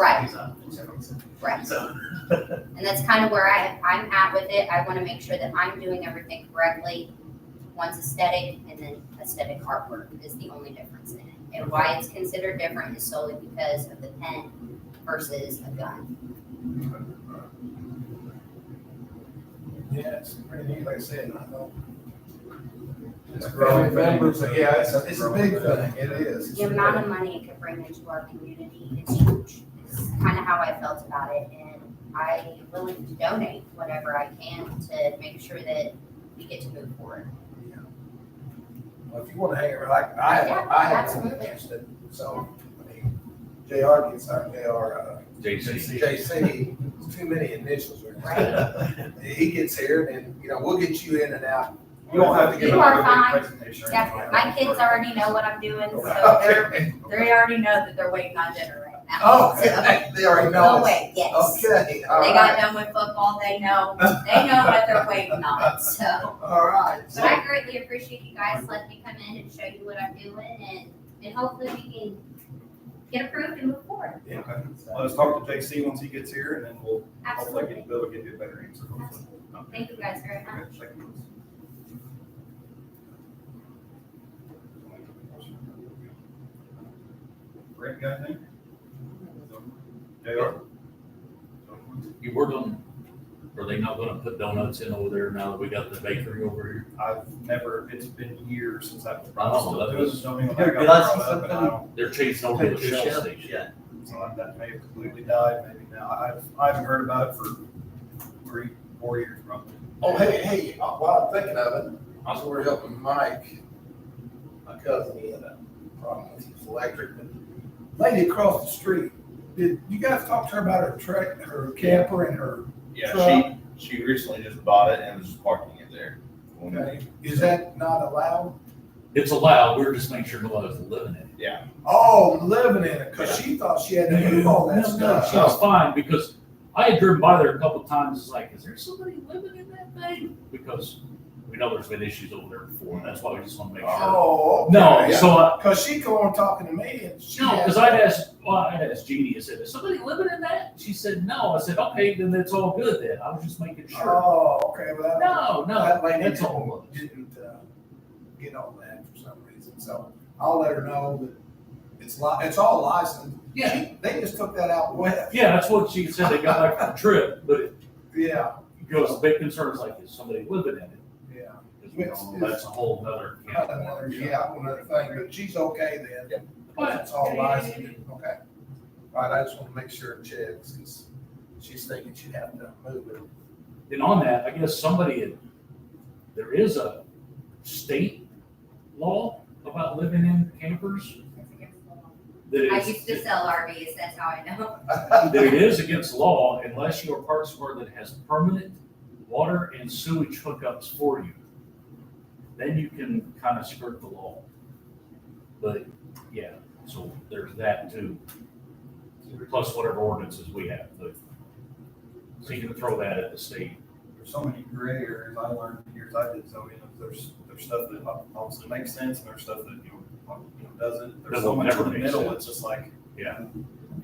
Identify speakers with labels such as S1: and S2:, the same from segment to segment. S1: Right,
S2: He's on the checklist.
S1: right.
S2: So,
S1: And that's kind of where I, I'm at with it. I want to make sure that I'm doing everything correctly. One's aesthetic and then aesthetic artwork is the only difference in it. And why it's considered different is solely because of the pen versus a gun.
S3: Yeah, it's pretty neat, like I said, I know.
S4: It's
S3: It's
S4: a growing
S3: growing
S4: thing.
S3: members, yeah, it's, it's a big
S4: It's a growing
S3: thing, it is.
S1: The amount of money it could bring into our community is huge. It's kind of how I felt about it. And I'm willing to donate whatever I can to make sure that we get to move forward.
S3: Well, If you wanna hang around, like, I have, I have one
S1: Absolutely.
S3: against it, so, I mean, JR gets, our JR, uh,
S5: JC.
S3: JC, it's too many initials. right?
S2: Right.
S3: He gets here and, you know, we'll get you in and out. You don't have to
S1: You
S3: give
S1: are
S3: up.
S1: fine.
S5: presentation.
S1: Yeah, my kids already know what I'm doing, so they're
S3: Okay.
S1: They already know that they're waiting on dinner right now.
S3: Oh,
S1: So,
S3: okay. they already
S1: They'll
S3: know.
S1: wait, yes.
S3: Okay, all
S1: They got
S3: right,
S1: done with football, they know, they know what they're waiting on, so.
S3: all right.
S1: But I greatly appreciate you guys letting me come in and show you what I'm doing and, and hopefully we can get approved and move forward.
S5: Yeah, okay. Well, Let's talk to JC once he gets here and then we'll hopefully
S1: Absolutely.
S5: get, Bill will give you a better answer hopefully.
S1: Absolutely. Thank you guys very much.
S5: Okay, thank you. Brent, got anything? JR?
S6: You were gonna, are they not gonna put donuts in over there now that we got the bakery over here?
S5: I've never, it's been years since I've.
S6: I don't know, that was-
S5: Don't even think
S4: Did
S5: I
S4: I
S5: brought
S4: see
S5: it up, and I
S4: something?
S5: don't-
S6: They're chasing over to the Shell station.
S4: Yeah.
S5: So like that may have completely died, maybe now. I've, I haven't heard about it for three, four years probably.
S3: Oh, hey, hey, uh, while I'm thinking of it, I was over helping Mike, my cousin, he had a problem with his electric, but lady across the street, did you guys talk to her about her truck, her camper and her,
S5: uh,
S7: Yeah, she, she recently just bought it and was just parking it there. When they-
S3: okay, is that not allowed?
S6: It's allowed, we're just making sure nobody's living in it.
S7: Yeah,
S3: Oh, living in it, cause she thought she had to move all that
S6: No, no, She
S3: stuff.
S6: was fine, because I had driven by there a couple times, it's like, is there somebody living in that thing? Because we know there's been issues over there before, and that's why we just wanna make sure.
S3: Oh. okay.
S6: No, so I,
S3: Cause she go on talking to me and she.
S6: No,
S3: had-
S6: because I'd asked, well, I'd asked Jeannie, I said, is somebody living in that? She said, no. I said, okay, then it's all good then. I was just making sure.
S3: Oh, okay, well. that-
S6: No, no,
S3: That lady
S6: that's all. it was.
S3: Didn't, uh, get all that for some reason, so I'll let her know that it's li, it's all licensed.
S6: Yeah,
S3: She- They just took that out west.
S6: yeah, that's what she said. They got back from the trip, but it
S3: Yeah,
S6: goes, big concerns like, is somebody living in it?
S3: yeah.
S6: 'Cause we all know That's a whole nother.
S3: Not another- Yeah, another thing, but she's okay then.
S6: But-
S3: It's all licensed, okay. All right, I just wanna make sure it checks, cause she's thinking she'd have to move it.
S6: And on that, I guess somebody, had- there is a state law about living in campers that
S1: I
S6: is.
S1: used to sell RVs, that's how I know.
S6: that it is against law unless you are part somewhere that has permanent water and sewage hookups for you. Then you can kind of skirt the law. But, yeah, so there's that too. Plus whatever ordinances we have, but, so you can throw that at the state.
S5: There's so many gray areas I learned in the years I did, so, you know, there's, there's stuff that obviously makes sense and there's stuff that, you know, you know, doesn't. There's
S6: That
S5: so
S6: will
S5: much
S6: never
S5: in the
S6: make
S5: middle,
S6: sense.
S5: it's just like.
S6: Yeah.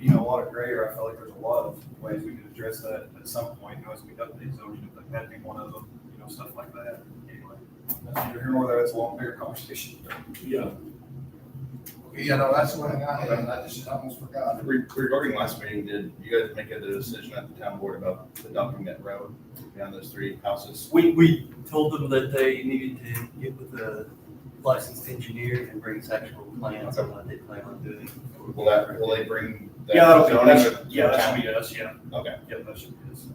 S5: You know, a lot of gray area, I feel like there's a lot of ways we could address that at some point, you know, as we update zoning, if that'd be one of them, you know, stuff like that. Anyway, that's neither here nor there, it's a long, bigger conversation.
S6: Yeah.
S3: You know, that's the one thing I had, and I just almost forgot.
S7: Uh, Re- regarding last meeting, did you guys make a decision at the town board about adopting that road down those three houses?
S4: We, we told them that they needed to get with a licensed engineer and bring us actual plans on what they plan on doing.
S7: Will that, will they bring? that zoning
S5: Yeah,
S7: to-
S5: yeah, that should be us, yeah,
S7: Okay,
S5: yeah, that should be us.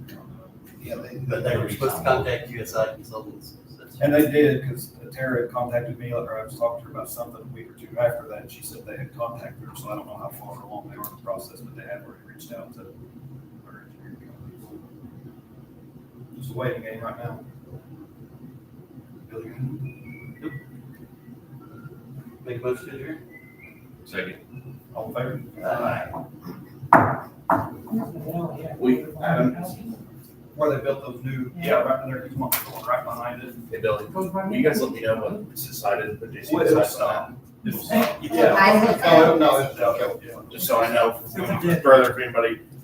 S3: Yeah, they,
S4: But they were supposed to contact USI consultants. that's-
S5: And they did, because Tara had contacted me, or I was talking to her about something a week or two after that, and she said they had contacted her, so I don't know how far along they are in the process, but they had already reached out to her engineering company. Just a waiting game right now. Billy,
S4: Make a motion to adjourn?
S6: Second.
S5: All in favor?
S6: We,
S5: Where they built those new, yeah, right there, there's one right behind it.
S7: hey Billy, will you guys let me know when it's decided, but JC
S5: What is
S7: decides
S5: stop?
S7: on
S8: It's-
S9: I would-
S5: No,
S7: Oh,
S5: no, it's- okay, just so I know, further, if anybody